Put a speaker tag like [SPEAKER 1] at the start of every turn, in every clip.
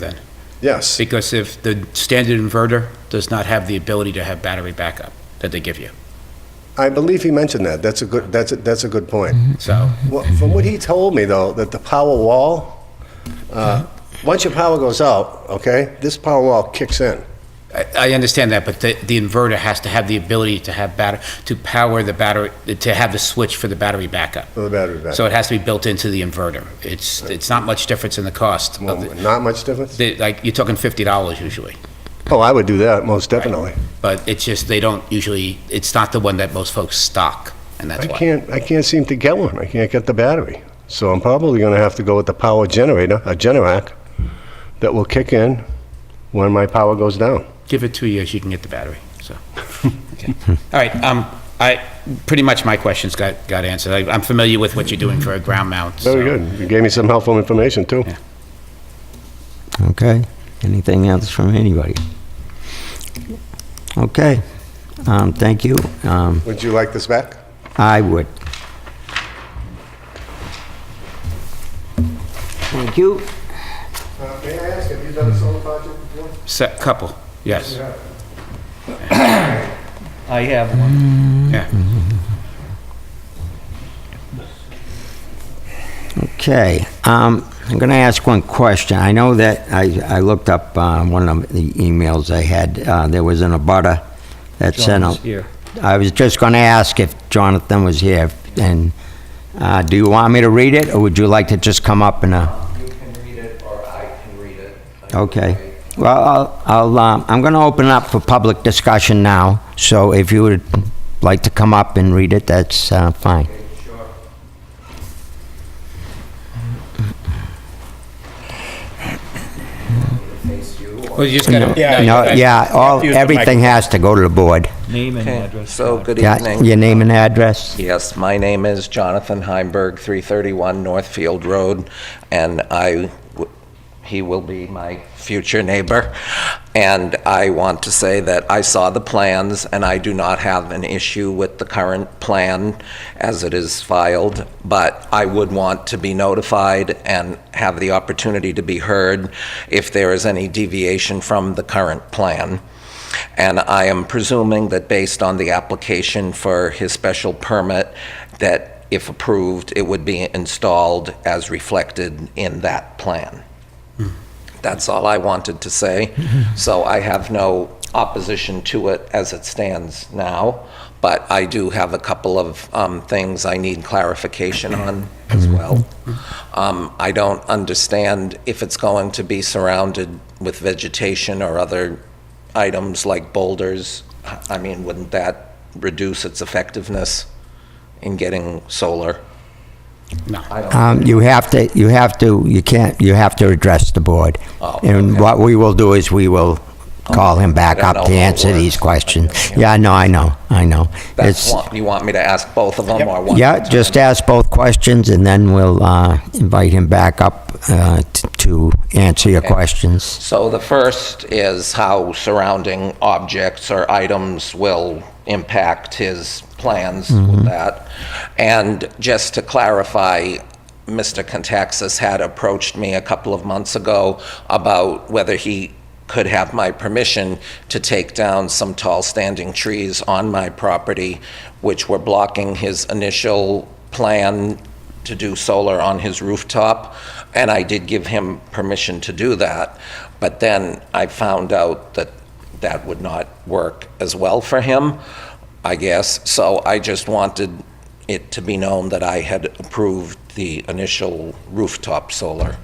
[SPEAKER 1] then?
[SPEAKER 2] Yes,
[SPEAKER 1] Because if the standard inverter does not have the ability to have battery backup that they give you,
[SPEAKER 2] I believe he mentioned that. That's a good, that's, a- that's a good point.
[SPEAKER 1] so.
[SPEAKER 2] Well, From what he told me, though, that the power wall, uh,
[SPEAKER 1] Mm-hmm.
[SPEAKER 2] once your power goes out, okay, this power wall kicks in.
[SPEAKER 1] I I understand that, but the, the inverter has to have the ability to have batter, to power the battery, to have the switch for the battery backup.
[SPEAKER 2] For the battery backup.
[SPEAKER 1] So it has to be built into the inverter. It's, it's not much difference in the cost.
[SPEAKER 2] Well,
[SPEAKER 1] of uh, the-
[SPEAKER 2] Not much difference?
[SPEAKER 1] they- Like, you're talking fifty dollars usually.
[SPEAKER 2] Oh, I would do that, most definitely.
[SPEAKER 1] But it's just, they don't usually, it's not the one that most folks stock, and that's
[SPEAKER 2] I
[SPEAKER 1] why.
[SPEAKER 2] can't, I can't seem to get one. I can't get the battery. So I'm probably going to have to go with the power generator, a Generac, that will kick in when my power goes down.
[SPEAKER 1] Give it two years, you can get the battery, so. Okay. All right, um, I, pretty much my questions got, got answered. I- I'm familiar with what you're doing for a ground mount, so.
[SPEAKER 2] Very good. You gave me some helpful information, too.
[SPEAKER 1] Yeah.
[SPEAKER 3] Okay, anything else from anybody? Okay, um, thank you.
[SPEAKER 1] Mm-hmm.
[SPEAKER 3] Um,
[SPEAKER 2] Would you like this back?
[SPEAKER 3] I would. Thank you.
[SPEAKER 2] Uh, May I ask, have you done a solar project before?
[SPEAKER 1] Se- Couple, yes,
[SPEAKER 4] I have one.
[SPEAKER 1] yeah.
[SPEAKER 3] Okay, um, I'm going to ask one question. I know that I, I looked up, uh, one of the emails I had, uh, there was an abutter that sent out.
[SPEAKER 4] John's here.
[SPEAKER 3] I was just going to ask if Jonathan was here, and, uh, do you want me to read it, or would you like to just come up and, uh?
[SPEAKER 5] You can read it, or I can read it.
[SPEAKER 3] Okay. Well, I'll, I'll, um, I'm going to open up for public discussion now, so if you would like to come up and read it, that's uh, fine.
[SPEAKER 1] Well, you just gotta.
[SPEAKER 3] No, yeah, all, everything has to go to the board.
[SPEAKER 4] Name and address.
[SPEAKER 5] So, good
[SPEAKER 3] Yeah,
[SPEAKER 5] evening.
[SPEAKER 3] Your name and address?
[SPEAKER 5] Yes, my name is Jonathan Heimberg, 331 Northfield Road, and I, w- he will be my future neighbor. And I want to say that I saw the plans, and I do not have an issue with the current plan as it is filed, but I would want to be notified and have the opportunity to be heard if there is any deviation from the current plan. And I am presuming that based on the application for his special permit, that if approved, it would be installed as reflected in that plan. That's all I wanted to say. So I have no opposition to it as it stands now, but I do have a couple of um, things I need clarification on as
[SPEAKER 3] Mm-hmm.
[SPEAKER 5] well. Um, I don't understand if it's going to be surrounded with vegetation or other items like boulders. I mean, wouldn't that reduce its effectiveness in getting solar?
[SPEAKER 1] No.
[SPEAKER 5] I don't
[SPEAKER 3] Um, You have to, you have to, you can't, you have to address the board.
[SPEAKER 5] Oh,
[SPEAKER 3] And
[SPEAKER 5] okay.
[SPEAKER 3] what we will do is we will call him back
[SPEAKER 5] I don't
[SPEAKER 3] up to
[SPEAKER 5] know how it
[SPEAKER 3] answer these
[SPEAKER 5] works.
[SPEAKER 3] questions. Yeah, no, I know, I know.
[SPEAKER 5] That's
[SPEAKER 3] It's-
[SPEAKER 5] one, you want me to ask both of them or one?
[SPEAKER 3] Yeah, just ask both questions, and then we'll uh, invite him back up uh, t- to answer your questions.
[SPEAKER 5] So the first is how surrounding objects or items will impact his plans with that. And just to clarify, Mr. Contaxis had approached me a couple of months ago about whether he could have my permission to take down some tall standing trees on my property, which were blocking his initial plan to do solar on his rooftop, and I did give him permission to do that. But then I found out that that would not work as well for him, I guess. So I just wanted it to be known that I had approved the initial rooftop solar.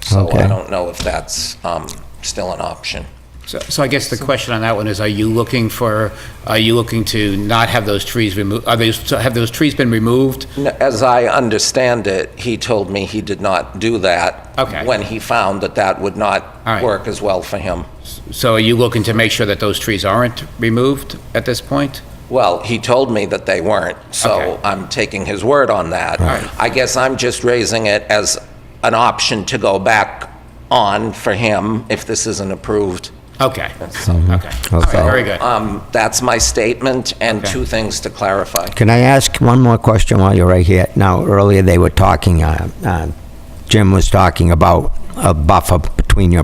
[SPEAKER 5] So I
[SPEAKER 3] Okay.
[SPEAKER 5] don't know if that's um, still an option.
[SPEAKER 1] So, so I guess the question on that one is, are you looking for, are you looking to not have those trees removed, are those, so have those trees been removed?
[SPEAKER 5] N- As I understand it, he told me he did not do that.
[SPEAKER 1] Okay.
[SPEAKER 5] When he found that that would not
[SPEAKER 1] All right.
[SPEAKER 5] work as well for him.
[SPEAKER 1] So are you looking to make sure that those trees aren't removed at this point?
[SPEAKER 5] Well, he told me that they weren't,
[SPEAKER 1] Okay.
[SPEAKER 5] so I'm taking his word on that.
[SPEAKER 1] Right.
[SPEAKER 5] I guess I'm just raising it as an option to go back on for him if this isn't approved.
[SPEAKER 1] Okay, okay. All right,
[SPEAKER 3] Okay.
[SPEAKER 1] very good.
[SPEAKER 5] Um, That's my statement and
[SPEAKER 1] Okay.
[SPEAKER 5] two things to clarify.
[SPEAKER 3] Can I ask one more question while you're right here? Now, earlier they were talking, uh, uh, Jim was talking about a buffer between your